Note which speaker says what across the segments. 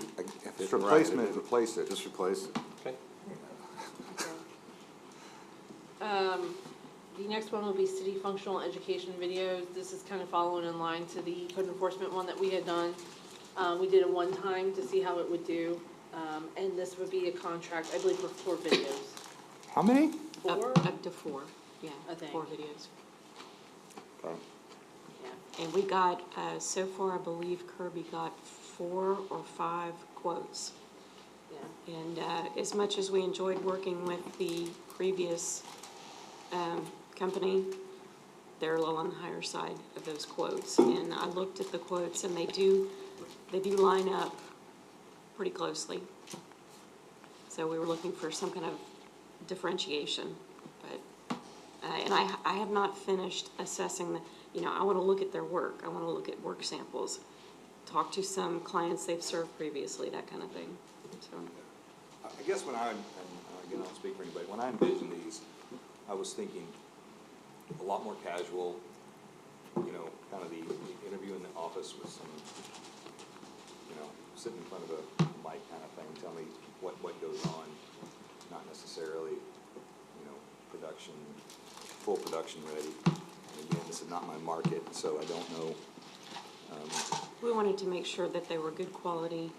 Speaker 1: just round it.
Speaker 2: replacement, replace it.
Speaker 3: Just replace it.
Speaker 1: Okay.
Speaker 4: Um, the next one will be city functional education videos. This is kind of following in line to the code enforcement one that we had done. Uh, we did it one time to see how it would do, um, and this would be a contract, I believe, for four videos.
Speaker 2: How many?
Speaker 5: Up,
Speaker 4: Four?
Speaker 1: Uh,
Speaker 5: up to four, yeah,
Speaker 4: I think.
Speaker 5: four videos.
Speaker 2: Okay.
Speaker 4: Yeah.
Speaker 5: And we got, uh, so far, I believe Kirby got four or five quotes.
Speaker 4: Yeah.
Speaker 5: And, uh, as much as we enjoyed working with the previous, um, company, they're a little on the higher side of those quotes. And I looked at the quotes and they do, they do line up pretty closely. So we were looking for some kind of differentiation, but, uh, and I, I have not finished assessing the, you know, I wanna look at their work, I wanna look at work samples, talk to some clients they've served previously, that kind of thing, so.
Speaker 2: I I guess when I, and again, I don't speak for anybody, when I envisioned these, I was thinking a lot more casual, you know, kind of the the interview in the office with some, you know, sitting in front of a mic kind of thing, tell me what, what goes on, not necessarily, you know, production, full production ready. And again, this is not my market, so I don't know,
Speaker 5: We wanted to make sure that they were good quality,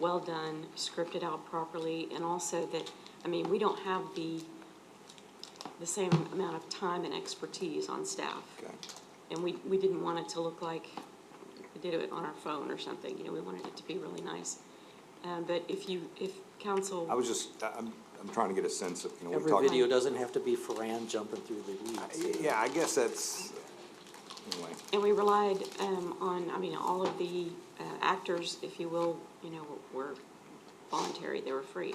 Speaker 5: well done, scripted out properly, and also that, I mean, we don't have the, the same amount of time and expertise on staff.
Speaker 2: okay,
Speaker 5: And we, we didn't want it to look like we did it on our phone or something, you know, we wanted it to be really nice. Um, but if you, if council.
Speaker 2: I was just, I- I'm, I'm trying to get a sense of, you know, we
Speaker 1: Every
Speaker 2: talked.
Speaker 1: video doesn't have to be Fran jumping through the weeds. you know.
Speaker 2: Yeah, I guess that's, anyway.
Speaker 5: And we relied um, on, I mean, all of the uh, actors, if you will, you know, were voluntary, they were free.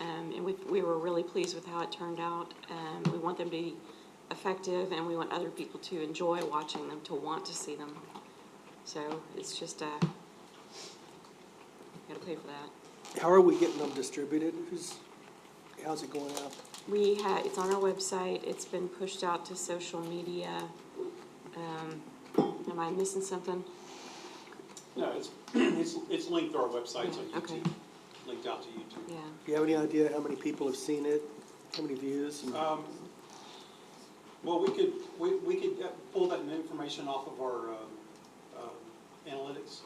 Speaker 5: Um, And we, we were really pleased with how it turned out. Um, We want them to be effective, and we want other people to enjoy watching them, to want to see them. So it's just, uh, gotta pay for that.
Speaker 6: How are we getting them distributed? Who's, how's it going out?
Speaker 5: We had, it's on our website, it's been pushed out to social media. Um, Am I missing something?
Speaker 7: No, it's, it's, it's linked through our website, so
Speaker 5: Yeah, okay.
Speaker 7: YouTube, linked out to YouTube.
Speaker 5: Yeah.
Speaker 6: Do you have any idea how many people have seen it? How many views? And
Speaker 7: Um, Well, we could, we, we could uh, pull that information off of our um, um, analytics,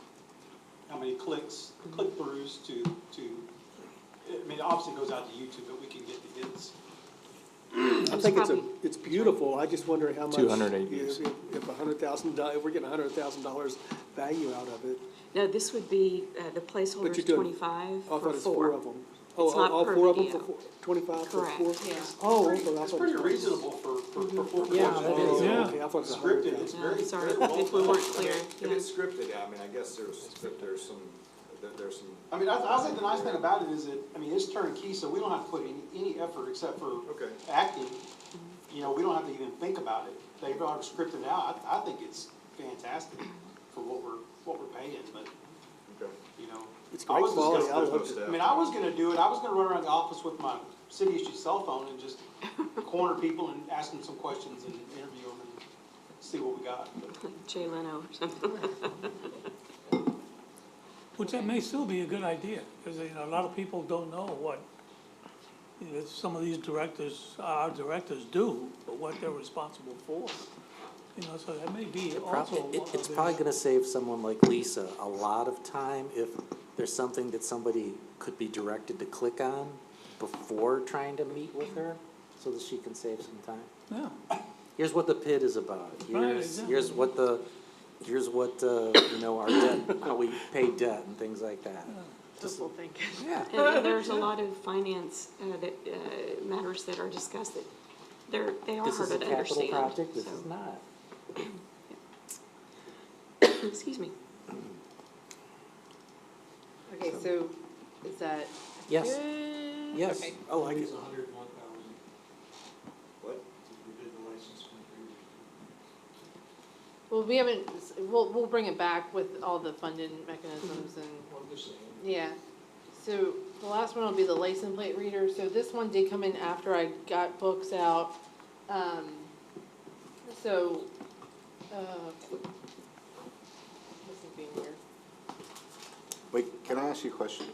Speaker 7: how many clicks,
Speaker 6: Mm-hmm.
Speaker 7: click throughs to, to, I mean, it obviously goes out to YouTube, but we can get the hits.
Speaker 6: I think it's a,
Speaker 5: probably-
Speaker 6: it's beautiful. I just wonder how much.
Speaker 3: 208
Speaker 6: if-
Speaker 3: views.
Speaker 6: If a hundred thousand, if we're getting a hundred thousand dollars value out of it.
Speaker 5: No, this would be, uh, the placeholder's
Speaker 6: doing-
Speaker 5: twenty-five
Speaker 6: I thought
Speaker 5: for
Speaker 6: it's four
Speaker 5: four.
Speaker 6: of them. Oh,
Speaker 5: It's not
Speaker 6: all
Speaker 5: per
Speaker 6: four of them
Speaker 5: video.
Speaker 6: for four, twenty-five for
Speaker 5: Correct,
Speaker 6: four?
Speaker 4: yeah.
Speaker 6: Oh, okay, I
Speaker 7: It's
Speaker 6: thought- Mm-hmm.
Speaker 7: pretty reasonable for, for, for four
Speaker 6: Yeah,
Speaker 7: productions.
Speaker 6: that is, okay, I thought it was a hundred
Speaker 7: Scripted,
Speaker 6: thousand.
Speaker 7: it's
Speaker 5: No,
Speaker 7: very,
Speaker 5: sorry,
Speaker 7: very
Speaker 5: if
Speaker 7: well
Speaker 5: we weren't
Speaker 7: put.
Speaker 5: clear,
Speaker 2: If
Speaker 5: yeah.
Speaker 2: it's scripted, I mean, I guess there's, that there's some, that there's some,
Speaker 7: I mean, I, I think the nice thing about it is that, I mean, it's turnkey, so we don't have to put any, any effort except for
Speaker 2: Okay.
Speaker 7: acting. You know, we don't have to even think about it. They've already scripted it out. I, I think it's fantastic for what we're, what we're paying, but,
Speaker 2: okay.
Speaker 7: you know.
Speaker 6: It's
Speaker 7: I
Speaker 6: great
Speaker 7: was just
Speaker 6: quality. I
Speaker 7: gonna-
Speaker 6: loved it.
Speaker 7: I mean, I was gonna do it. I was gonna run around the office with my city issue cell phone and just corner people and ask them some questions and interview them and see what we got. But
Speaker 5: Jay Leno or something.
Speaker 8: Which that may still be a good idea, because you know, a lot of people don't know what, you know, some of these directors, our directors do, but what they're responsible for. You know, so that may be also
Speaker 1: Probably,
Speaker 8: one
Speaker 1: it,
Speaker 8: of
Speaker 1: it's
Speaker 8: the-
Speaker 1: probably gonna save someone like Lisa a lot of time if there's something that somebody could be directed to click on before trying to meet with her, so that she can save some time.
Speaker 8: Yeah,
Speaker 1: Here's what the pit is about,
Speaker 8: Right,
Speaker 1: here's,
Speaker 8: exactly.
Speaker 1: here's what the, here's what, uh, you know, our debt, how we pay debt and things like that.
Speaker 4: Hopeful thinking.
Speaker 1: Yeah.
Speaker 5: And then there's a lot of finance, uh, that, uh, matters that are discussed that they're, they are
Speaker 1: This is a
Speaker 5: harder to
Speaker 1: capital
Speaker 5: understand.
Speaker 1: project, this
Speaker 5: so-
Speaker 1: is not.
Speaker 5: Excuse me.
Speaker 4: Okay, so is that
Speaker 1: Yes,
Speaker 4: good?
Speaker 1: yes,
Speaker 4: Okay.
Speaker 1: I like it.
Speaker 7: hundred and one thousand,
Speaker 2: What?
Speaker 7: we did the license
Speaker 4: Well, we haven't, we'll, we'll bring it back with all the funding
Speaker 1: Mm-hmm.
Speaker 4: mechanisms and Yeah, so the last one will be the license plate reader, so this one did come in after I got books out. Um, so, uh, this is being weird.
Speaker 3: Wait, can I ask you a question?